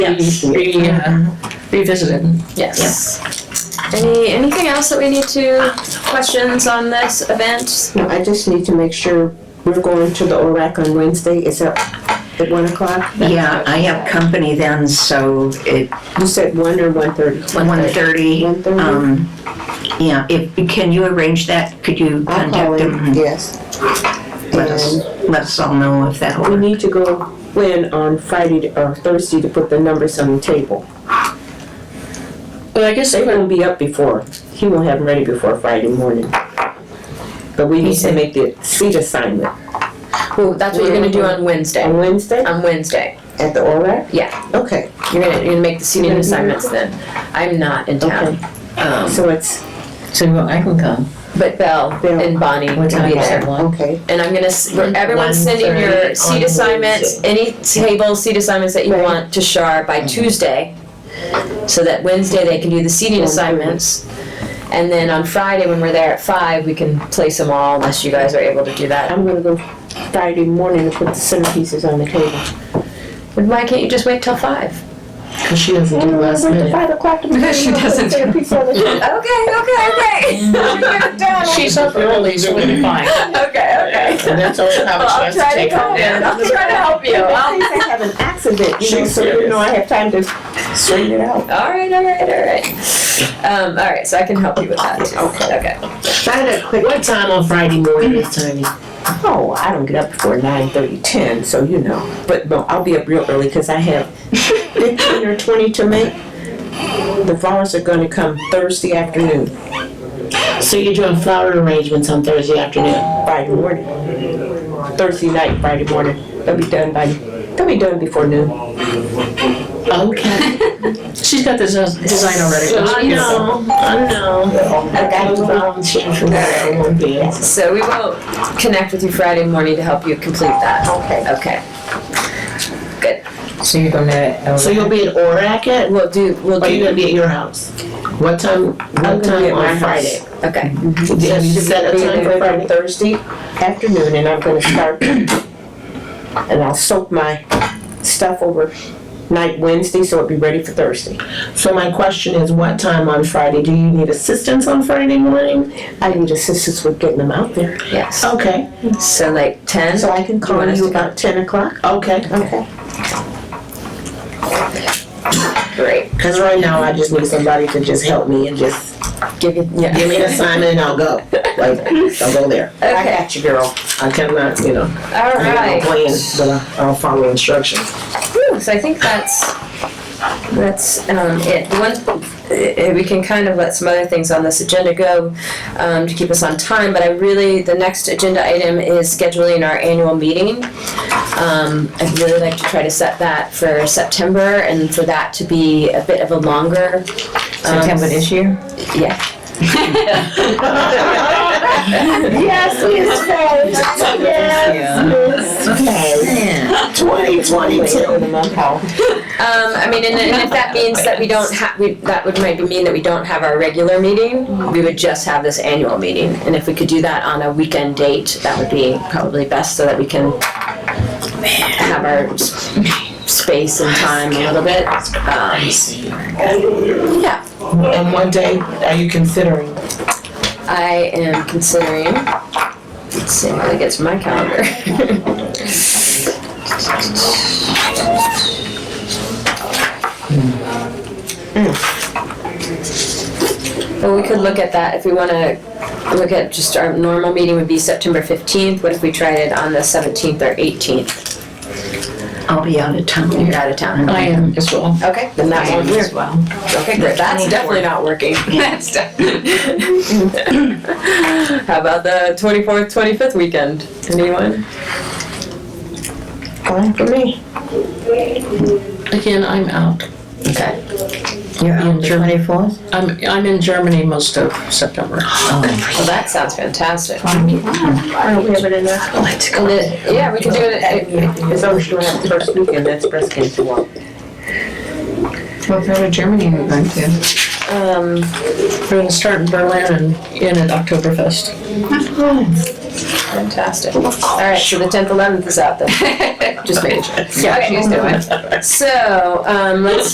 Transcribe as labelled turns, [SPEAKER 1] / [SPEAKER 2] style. [SPEAKER 1] Yes.
[SPEAKER 2] re- uh, revisited.
[SPEAKER 1] Yes. Any, anything else that we need to, questions on this event?
[SPEAKER 3] No, I just need to make sure we're going to the ORAC on Wednesday. Is that at one o'clock?
[SPEAKER 4] Yeah, I have company then, so it,
[SPEAKER 3] You said one or one thirty?
[SPEAKER 4] one thirty,
[SPEAKER 3] One thirty?
[SPEAKER 4] um, yeah, if, can you arrange that? Could you
[SPEAKER 3] I'll call
[SPEAKER 4] contact them
[SPEAKER 3] in,
[SPEAKER 4] and
[SPEAKER 3] yes.
[SPEAKER 4] let us,
[SPEAKER 3] And
[SPEAKER 4] let us all know if that'll
[SPEAKER 3] we
[SPEAKER 4] work?
[SPEAKER 3] need to go plan on Friday to- or Thursday to put the numbers on the table.
[SPEAKER 2] Well, I guess
[SPEAKER 3] They
[SPEAKER 2] they were,
[SPEAKER 3] won't be up before, he won't have them ready before Friday morning. But we need to make the seat assignment
[SPEAKER 1] Well, that's what you're gonna do on Wednesday.
[SPEAKER 3] on Wednesday
[SPEAKER 1] On Wednesday.
[SPEAKER 3] at the ORAC?
[SPEAKER 1] Um, Yeah.
[SPEAKER 3] Okay,
[SPEAKER 1] You're gonna, you're gonna make the seating
[SPEAKER 3] You're gonna be
[SPEAKER 1] assignments then. I'm not in town. Um,
[SPEAKER 3] so it's,
[SPEAKER 2] so well, I can come.
[SPEAKER 1] but Belle
[SPEAKER 3] Belle.
[SPEAKER 1] and Bonnie will
[SPEAKER 2] What time
[SPEAKER 1] be
[SPEAKER 2] is
[SPEAKER 1] there.
[SPEAKER 2] it? One?
[SPEAKER 3] okay.
[SPEAKER 1] And I'm gonna, s- we're- everyone's sending your
[SPEAKER 2] 1:30
[SPEAKER 1] seat
[SPEAKER 2] on
[SPEAKER 1] assignments, any table seat assignments that you
[SPEAKER 3] Right.
[SPEAKER 1] want to Shar by Tuesday. So that Wednesday they can do the seating assignments. And then on Friday, when we're there at five, we can place them all unless you guys are able to do that.
[SPEAKER 3] I'm gonna go Friday morning and put the centerpieces on the table.
[SPEAKER 1] But Why can't you just wait till five?
[SPEAKER 2] Cause she doesn't do last minute.
[SPEAKER 3] Mm, Five o'clock.
[SPEAKER 4] She doesn't.
[SPEAKER 1] Okay, okay, okay.
[SPEAKER 2] She's up early, so we'll be fine.
[SPEAKER 1] Okay, okay.
[SPEAKER 2] And that's all I have a chance to take her down.
[SPEAKER 1] I'll try to help you.
[SPEAKER 3] Well, in case I have an accident, you know, so you know I have time to straighten it out.
[SPEAKER 1] All right, all right, all right. Um, all right, so I can help you with that too. Okay.
[SPEAKER 3] I had a quick,
[SPEAKER 2] What time on Friday morning is Tony?
[SPEAKER 3] oh, I don't get up before nine thirty, ten, so you know. But no, I'll be up real early because I have fifteen or twenty to make. The flowers are gonna come Thursday afternoon,
[SPEAKER 2] So you're doing flower arrangements on Thursday afternoon?
[SPEAKER 3] Friday morning. Thursday night, Friday morning. They'll be done by, they'll be done before noon.
[SPEAKER 2] Okay. She's got this uh, design already. I know, I know. I got to volunteer for that, I won't be.
[SPEAKER 1] So we will connect with you Friday morning to help you complete that.
[SPEAKER 3] Okay.
[SPEAKER 1] Okay.
[SPEAKER 5] So you're gonna,
[SPEAKER 2] So you'll be at ORAC at,
[SPEAKER 1] We'll do, we'll
[SPEAKER 2] or are you
[SPEAKER 1] do,
[SPEAKER 2] gonna be at your house? What
[SPEAKER 3] I'm
[SPEAKER 2] time, what
[SPEAKER 3] gonna be
[SPEAKER 2] time
[SPEAKER 3] at my
[SPEAKER 2] on
[SPEAKER 3] house.
[SPEAKER 2] Friday?
[SPEAKER 1] okay.
[SPEAKER 2] Have you set a
[SPEAKER 3] Be
[SPEAKER 2] time
[SPEAKER 3] there
[SPEAKER 2] for
[SPEAKER 3] by
[SPEAKER 2] Friday?
[SPEAKER 3] Thursday afternoon, and I'm gonna start, and I'll soak my stuff over night Wednesday, so it'll be ready for Thursday.
[SPEAKER 2] So my question is, what time on Friday? Do you need assistance on Friday morning?
[SPEAKER 3] I need assistance with getting them out there,
[SPEAKER 1] Yes.
[SPEAKER 2] Okay,
[SPEAKER 1] So like ten?
[SPEAKER 3] so I can
[SPEAKER 1] You
[SPEAKER 3] call
[SPEAKER 1] want us
[SPEAKER 3] you
[SPEAKER 1] to
[SPEAKER 3] about ten o'clock.
[SPEAKER 2] okay.
[SPEAKER 3] Okay.
[SPEAKER 1] Great.
[SPEAKER 2] Cause right now I just need somebody to just help me and just
[SPEAKER 1] Give it, yeah.
[SPEAKER 2] give me an assignment and I'll go. Like, I'll go there.
[SPEAKER 3] I
[SPEAKER 1] Okay,
[SPEAKER 3] got you, girl.
[SPEAKER 2] I cannot, you know,
[SPEAKER 1] all
[SPEAKER 2] I have no
[SPEAKER 1] right.
[SPEAKER 2] plans, but I- I'll follow instructions.
[SPEAKER 1] Whew, So I think that's, that's, um, it. One, uh, we can kind of let some other things on this agenda go, um, to keep us on time, but I really, the next agenda item is scheduling our annual meeting. Um, I'd really like to try to set that for September and for that to be a bit of a longer. September this year? Yeah.
[SPEAKER 3] Yes, yes, yes.
[SPEAKER 2] Okay,
[SPEAKER 4] Yeah.
[SPEAKER 2] twenty twenty-two.
[SPEAKER 1] Um, I mean, and, and if that means that we don't have, we, that would maybe mean that we don't have our regular meeting, we would just have this annual meeting. And if we could do that on a weekend date, that would be probably best so that we can have our s- space and time a little bit. Um, yeah,
[SPEAKER 2] And what day are you considering?
[SPEAKER 1] I am considering, let's see when it gets to my calendar. Hmm. Well, we could look at that if we want to look at just our normal meeting would be September 15th. What if we tried it on the 17th or 18th?
[SPEAKER 4] I'll be out of town.
[SPEAKER 1] You're out of town.
[SPEAKER 2] I am as well.
[SPEAKER 1] Okay, then that won't work.
[SPEAKER 2] well.
[SPEAKER 1] Okay, great. That's definitely not working. That's definitely. How about the 24th, 25th weekend? Anyone?
[SPEAKER 3] Fine for me.
[SPEAKER 2] Again, I'm out.
[SPEAKER 1] Okay.
[SPEAKER 4] You're on twenty-fourth?
[SPEAKER 2] I'm, I'm in Germany most of September.
[SPEAKER 1] Well, that sounds fantastic.
[SPEAKER 3] I don't have it enough.
[SPEAKER 1] And then- yeah, we could do it. at-
[SPEAKER 3] As long as you don't have the first weekend, that's breast cancer walk.
[SPEAKER 5] what part of Germany are you going to?
[SPEAKER 1] Um,
[SPEAKER 2] We're gonna start in Berlin and end at Oktoberfest.
[SPEAKER 1] Fantastic. All right, so the tenth, eleventh is out then. Just making sure.
[SPEAKER 5] Yeah, she's doing.
[SPEAKER 1] So, um, let's